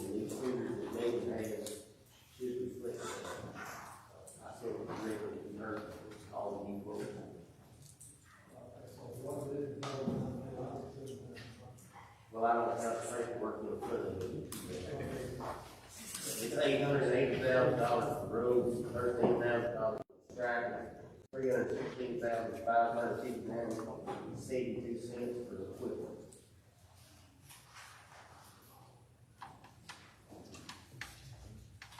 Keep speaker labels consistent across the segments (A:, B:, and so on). A: uh, it's eight hundred eighty thousand dollars for roads, thirteen thousand dollars for striping, three hundred sixteen thousand five hundred fifty-nine seventy-two cents for the equipment.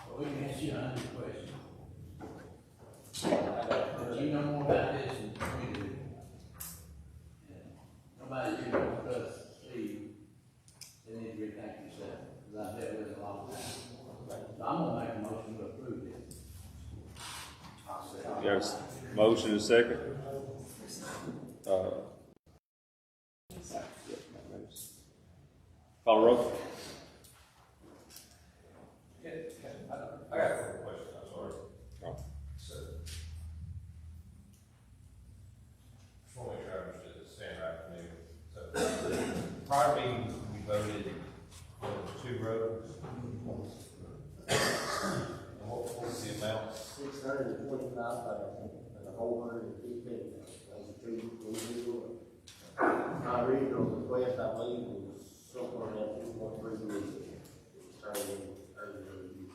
B: Well, we can ask you a hundred questions. But you know more about this than we do. And Nobody you don't trust, Steve, they need to rethink themselves, because I've dealt with it a lot of times. So I'm gonna make a motion to approve this.
C: You have a motion and a second? Uh, Call the roll.
D: I got a quick question, I'm sorry.
C: Oh.
D: So. Just wanna make sure I understood this, stand right for me. So, prior meeting, we voted for the two roads. And what what was the amount?
A: Six hundred and twenty-five thousand and a whole hundred and fifteen thousand, those are two individual. My original request, I believe, was somewhere around two point three million. It was turned in earlier this year.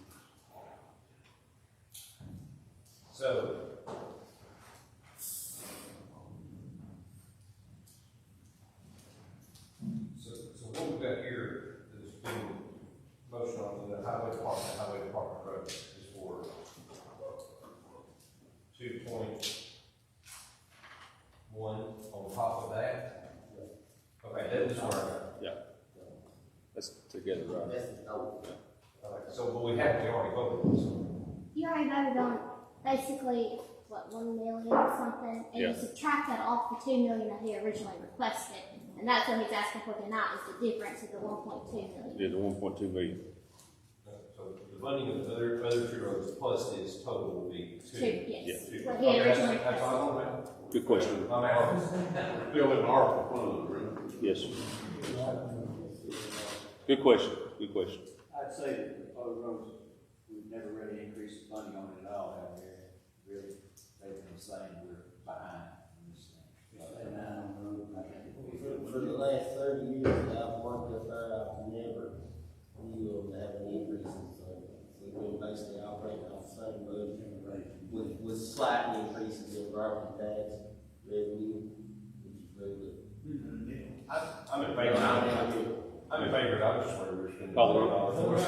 D: So. So, so what we've got here is being motion on the highway department, highway department road is for two point one on top of that? Okay, that is our,
C: That's together, uh, right?
A: That's the total.
D: okay, so, but we have, we already voted, so,
E: You already voted on basically, what, one million or something? And
C: Yeah.
E: you subtract that off the two million that he originally requested. And that's what he's asking for tonight, is the difference of the one point two million.
C: Yeah, the one point two million.
D: so the funding of the other, other two roads plus this total will be
E: Two, yes.
D: two.
E: What he
D: Okay, that's-
E: originally
D: That's
E: requested.
D: all I'm at.
C: Good question.
D: My man,
F: Bill and Art were one of them, right?
C: Yes. Good question, good question.
G: I'd say that the proposed roads, we've never really increased the funding on it at all out there. Really, they've been saying we're behind on this thing.
B: Stay down on the road, I think it'll be
A: For
B: good.
A: for the last thirty years that I've worked up there, I've never knew of having increases, so we've been basically operating off the same budget with, with slight increases in property tax revenue, which is very good.
D: I- I'm in favor, I'm, I'm in favor, I just wanted to spend.
C: Call the
H: Is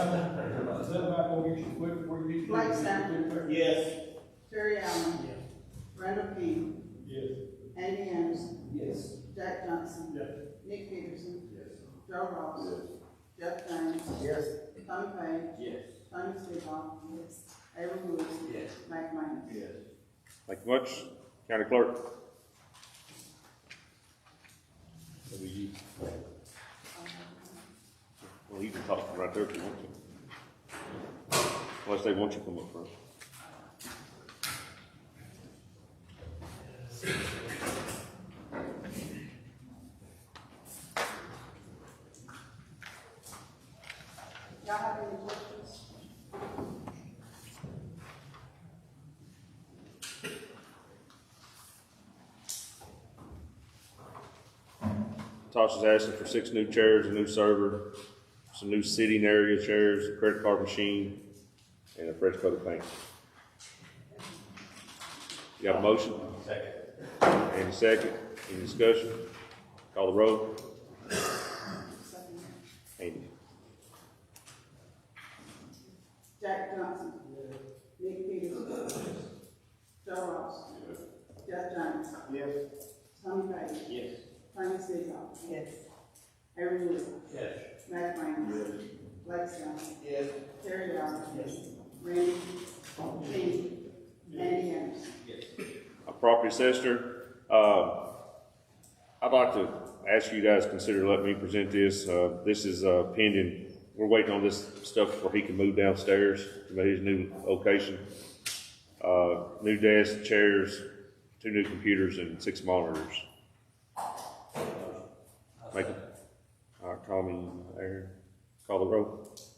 H: that about what we should, what, what we should?
I: Blake Sample.
A: Yes.
I: Terry Allen. Randall King.
H: Yes.
I: Andy Anderson.
H: Yes.
I: Jack Johnson.
H: Yes.
I: Nick Peterson.
H: Yes.
I: Joe Ross. Jeff James.
A: Yes.
I: Tommy Page.
H: Yes.
I: Tommy Stedall. Yes. Aaron Lewis.
B: Yes.
I: Mike Minus.
H: Yes.
C: Thank you much. County Clerk. That'll be you. Well, you can talk from right there if you want to. Unless they want you to come up first.
I: Y'all have any questions?
C: Tasha's asking for six new chairs, a new server, some new seating area chairs, a credit card machine, and a fresh coat of paint. You got a motion?
D: Second.
C: And a second, any discussion? Call the roll.
I: Second.
C: Andy.
I: Jack Johnson. Nick Peterson. Joe Ross. Jeff James.
A: Yes.
I: Tommy Page.
H: Yes.
I: Tommy Stedall. Yes. Aaron Lewis.
H: Yes.
I: Mike Minus. Blake Sample.
H: Yes.
I: Terry Allen. Yes. Randy. King. Andy Anderson.
C: a property assessor. Uh, I'd like to ask you guys to consider letting me present this. Uh, this is uh, pending, we're waiting on this stuff where he can move downstairs to his new location. Uh, new desk, chairs, two new computers and six monitors. uh, Make it. All right, call me, Aaron. Call the roll.